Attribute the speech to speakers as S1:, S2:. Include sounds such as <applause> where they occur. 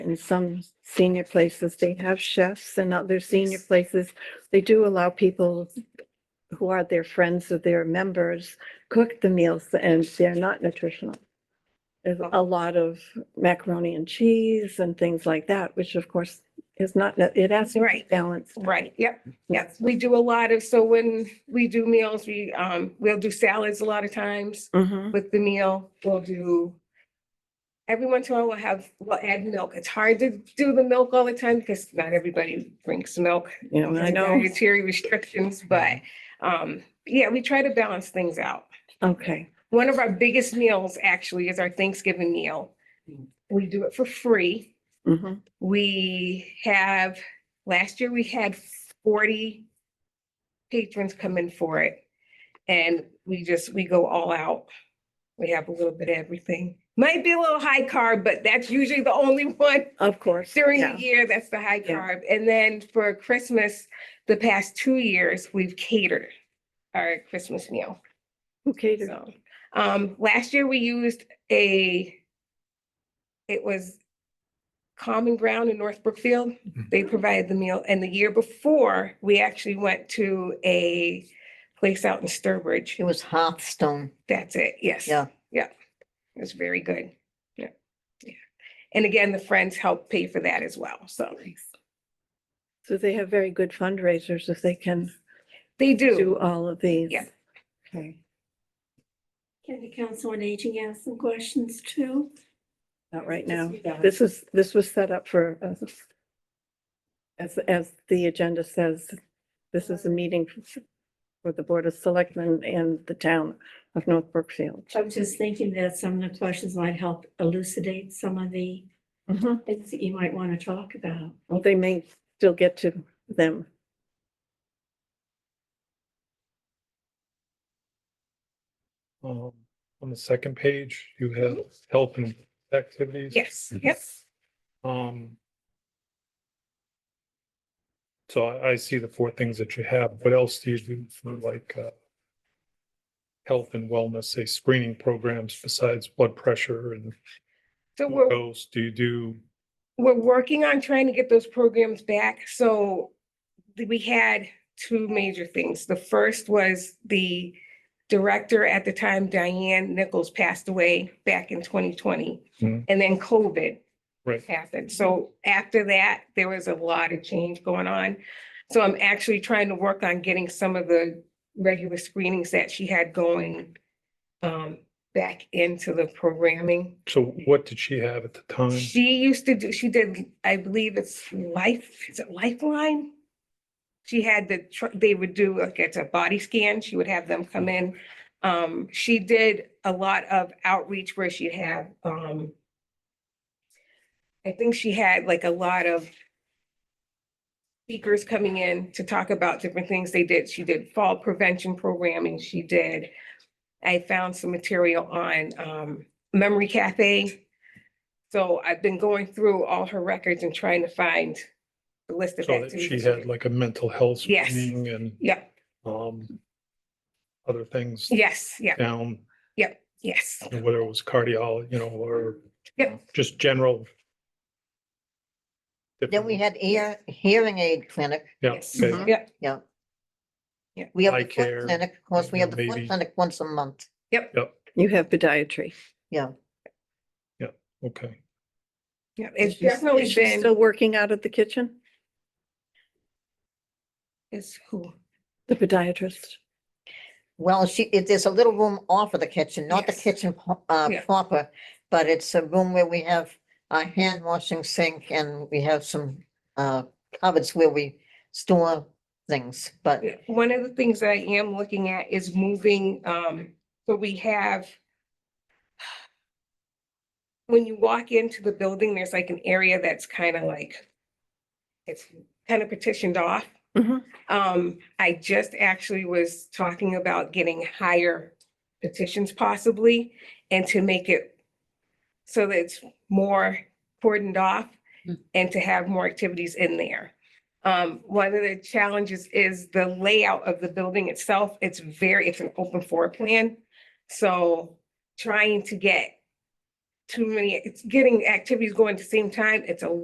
S1: in some senior places, they have chefs and other senior places, they do allow people who are their friends or their members cook the meals and they're not nutritional. There's a lot of macaroni and cheese and things like that, which of course is not, it has to be
S2: Right.
S1: balanced.
S2: Right, yep, yes, we do a lot of, so when we do meals, we, um, we'll do salads a lot of times
S1: Mhm.
S2: with the meal, we'll do. Every once in a while, we'll have, we'll add milk, it's hard to do the milk all the time because not everybody drinks milk.
S1: Yeah, I
S2: and
S1: know.
S2: Dietary restrictions, but, um, yeah, we try to balance things out.
S1: Okay.
S2: One of our biggest meals actually is our Thanksgiving meal. We do it for free.
S1: Mhm.
S2: We have, last year we had forty patrons come in for it. And we just, we go all out. We have a little bit of everything. Might be a little high carb, but that's usually the only <laughs> one
S1: Of course.
S2: during <laughs>
S1: yeah.
S2: the year, that's the high
S1: Yeah.
S2: carb. And then for Christmas, the past two years, we've catered our Christmas meal.
S1: Who catered?
S2: So, um, last year we used a, it was Common Ground in North Brookfield. They provided the meal. And the year before, we actually went to a place out in Sturbridge.
S3: It was Hearthstone.
S2: That's it. Yes.
S3: Yeah.
S2: Yeah. It was very good. Yeah. Yeah. And again, the friends helped pay for that as well. So
S1: So they have very good fundraisers if they can
S2: they do.
S1: do all of these.
S2: Yeah.
S1: Okay.
S4: Can the council on aging ask some questions too?
S1: Not right now.
S4: Just- uh, yeah.
S1: This is, this was set up for, uh, as, as the agenda says, this is a meeting for the Board of Selectmen and the town of North Brookfield.
S4: I'm just thinking that some of the questions might help elucidate some of the
S2: Mm-hmm.
S1: Well,
S4: things that you might want to talk about.
S1: they may still get to them.
S5: Um, on the second page, you have help and activities.
S2: Yes. Yes.
S5: Um. So I, I see the four things that you have. What else do you do for like, uh, health and wellness, say screening programs besides blood pressure and
S2: So we're,
S5: what else do you do?
S2: we're working on trying to get those programs back, so th- we had two major things. The first was the director at the time, Diane Nichols, passed away back in twenty twenty.
S5: Hmm.
S2: And then COVID
S5: Right.
S2: happened. So after that, there was a lot of change going on. So I'm actually trying to work on getting some of the regular screenings that she had going um, back into the programming.
S5: So what did she have at the time?
S2: She used to do, she did, I believe it's Life, is it Lifeline? She had the, tr- they would do like it's a body scan, she would have them come in. Um, she did a lot of outreach where she'd have, um, I think she had like a lot of speakers coming in to talk about different things they did. She did fall prevention programming, she did. I found some material on, um, Memory Cafe. So I've been going through all her records and trying to find the list of
S5: So that she
S2: activities.
S5: had like a mental health
S2: Yes.
S5: screening and,
S2: Yeah,
S5: um, other things
S2: yes, yeah,
S5: down,
S2: yes,
S5: you know, whether it was cardiology, you know, or
S2: Yep.
S5: just general.
S3: Then we had ear, hearing aid clinic.
S5: Yes.
S2: yes,
S1: okay.
S2: yeah,
S3: Yeah.
S2: Yeah.
S3: We have
S5: Eye
S3: the
S5: care,
S3: foot clinic, of course, we
S5: you
S3: have
S5: know,
S3: the
S5: maybe.
S3: foot clinic once a month.
S1: You have podiatry.
S3: Mm-hmm.
S5: Okay.
S2: yeah. It's
S1: She's-
S2: definitely
S1: is she
S2: been,
S1: Still working out of the kitchen,
S2: it's who,
S1: the podiatrist?
S3: Well, she, it, there's a little room off of the kitchen, not the
S2: Yes.
S3: kitchen po- uh,
S2: Yeah.
S3: proper, but it's a room where we have a hand washing sink and we have some, uh, cupboards where we store things, but
S2: Yeah, One of the things I am looking at is moving, um, so we have. When you walk into the building, there's like an area that's kind of like. It's kind of petitioned off.
S1: Mhm.
S2: Um, I just actually was talking about getting higher petitions possibly and to make it. So that it's more cordoned off and to have more activities in there. Um, one of the challenges is the layout of the building itself. It's very, it's an open floor plan. So trying to get too many, it's getting activities going at the same time, it's a